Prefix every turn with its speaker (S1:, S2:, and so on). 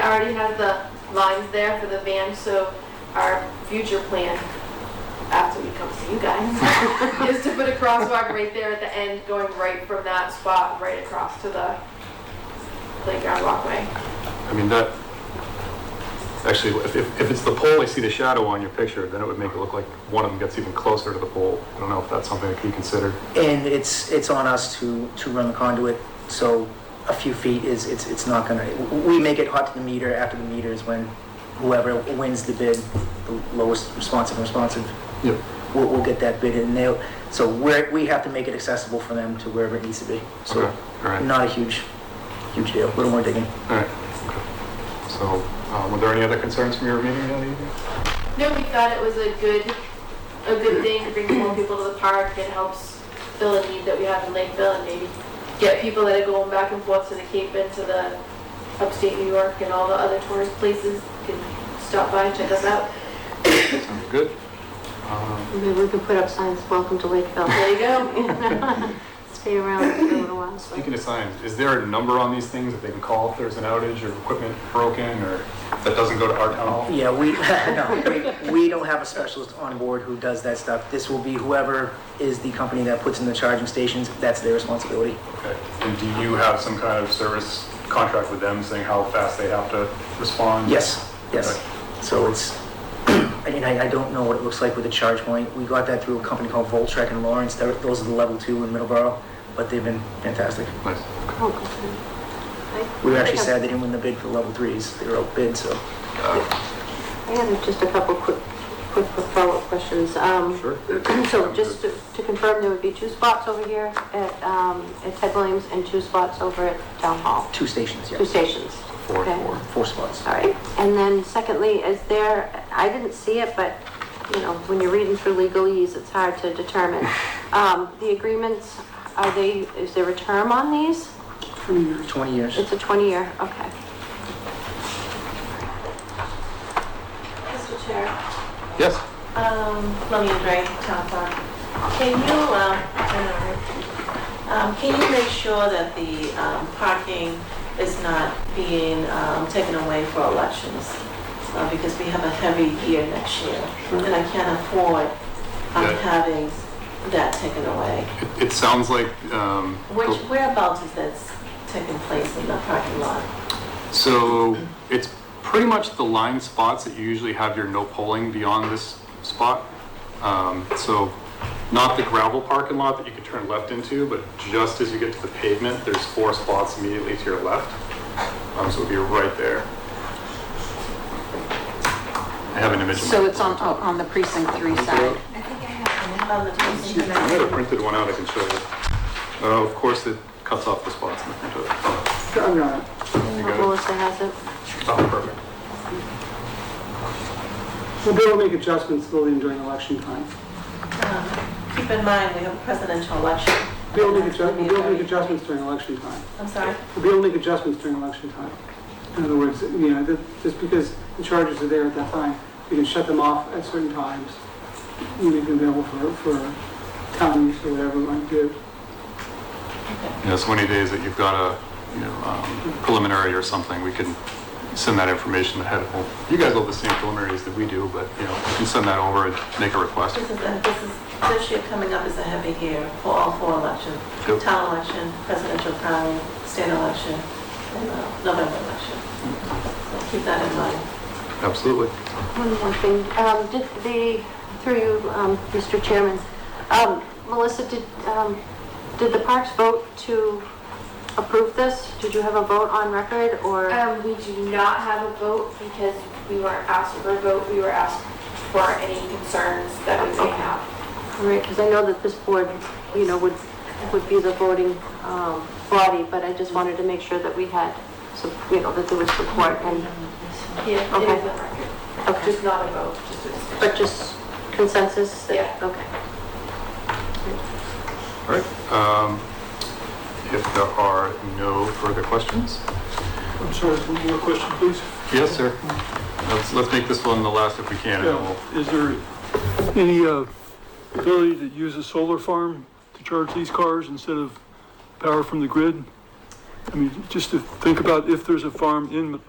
S1: already has the lines there for the van, so our future plan, after we come see you guys, is to put a crosswalk right there at the end, going right from that spot, right across to the playground walkway.
S2: I mean, that, actually, if, if if it's the pole, I see the shadow on your picture, then it would make it look like one of them gets even closer to the pole. I don't know if that's something that could be considered.
S3: And it's, it's on us to, to run the conduit, so a few feet is, it's, it's not gonna, we make it hot to the meter, after the meter is when whoever wins the bid, the lowest responsive responsive,
S2: Yep.
S3: will, will get that bid, and they'll, so we're, we have to make it accessible for them to wherever it needs to be.
S2: Okay,
S3: So,
S2: all right, all
S3: not a huge, huge deal, a little more digging.
S2: right. Okay. So, um, were there any other concerns from your meeting that evening?
S1: No, we thought it was a good, a good thing to bring more people to the park. It helps fill a need that we have in Lakeville and maybe get people that are going back and forth to the Cape and to the upstate New York and all the other tourist places can stop by and check us out.
S2: Sounds good. Um,
S4: Maybe we can put up signs, welcome to Lakeville.
S1: There you go.
S4: Stay around for a little while, so.
S2: Speaking of signs, is there a number on these things that they can call if there's an outage or equipment broken or that doesn't go to our town hall?
S3: Yeah, we, no, we, we don't have a specialist on board who does that stuff. This will be whoever is the company that puts in the charging stations, that's their responsibility.
S2: Okay. And do you have some kind of service contract with them saying how fast they have to respond?
S3: Yes, yes. So it's, I mean, I, I don't know what it looks like with the charge point. We got that through a company called Voltrek in Lawrence. They're- Those are the level two in Middleborough, but they've been fantastic.
S2: Nice.
S4: Oh, good. I-
S3: We were
S4: I
S3: actually
S4: have-
S3: sad they didn't win the bid for level threes. They were outbid, so.
S4: I have just a couple quick, quick follow-up questions. Um,
S2: Sure.
S4: So just to to confirm, there would be two spots over here at, um, at Ted Williams and two spots over at Town Hall,
S3: Two stations,
S4: two
S3: yeah.
S4: stations.
S2: Four,
S4: Okay.
S2: four.
S3: Four spots.
S4: All right, and then secondly, is there, I didn't see it, but, you know, when you're reading through legalese, it's hard to determine. Um, the agreements, are they, is there a term on these?
S3: Twenty years.
S4: It's a twenty-year, okay.
S5: Mr. Chair,
S2: Yes.
S5: um, let me Andre, town clerk. Can you, um, I know, right? um, can you make sure that the, um, parking is not being, um, taken away for elections? Uh, because we have a heavy year next year, and I can't afford, um,
S2: Yeah.
S5: having that taken away.
S2: It, it sounds like, um,
S5: Which, whereabouts is this taking place in the parking lot?
S2: so it's pretty much the line spots that you usually have your no polling beyond this spot. Um, so not the gravel parking lot that you could turn left into, but just as you get to the pavement, there's four spots immediately to your left. Um, so it'd be right there. I have an image. in my-
S6: So it's on, on the precinct three side.
S5: On the
S2: I have a printed one out I can show you. Uh, of course, it cuts off the spots in the front of it. There you go.
S4: Melissa has it.
S2: Oh, perfect.
S7: We'll be able to make adjustments building during election time.
S5: Uh, Keep in mind, we have a presidential election.
S7: We'll be able to make adju-
S5: That's gonna be a
S7: we'll be able to make
S5: very-
S7: adjustments during election time.
S5: I'm sorry?
S7: We'll be able to make adjustments during election time. In other words, you know, that- just because the charges are there at that time, we can shut them off at certain times. We make them available for, for town use or whatever we might do.
S2: You know, so any days that you've got a, you know, um, preliminary or something, we can send that information ahead of, well, you guys will have the same preliminaries that we do, but, you know, we can send that over and make a request.
S5: This is, this is, this year coming up is a heavy year for all four elections.
S2: Yep.
S5: Town election, presidential primary, state election, and uh, November election. So Keep that in mind.
S2: Absolutely.
S4: One more thing, um, did the, through you, um, Mr. Chairman, um, Melissa, did, um, did the parks vote to approve this? Did you have a vote on record
S2: Uh,
S4: or?
S1: Um, we do not have a vote because we weren't asked for a vote. We were asked for any concerns that we may have.
S4: Right, because I know that this board, you know, would, would be the voting um, body, but I just wanted to make sure that we had, some- you know, that there was support and,
S1: Yeah, it
S4: Okay.
S1: is on record,
S4: okay,
S1: just not a vote, just a discussion.
S4: but just consensus? that-
S1: Yeah.
S4: Okay.
S2: All right. Um, if there are no further questions?
S8: I'm sorry, one more question, please.
S2: Yes, sir. Let's, let's make this one the last if we can, and then we'll
S8: Is there any uh, ability to use a solar farm to charge these cars instead of power from the grid? I mean, just to think about if there's a farm in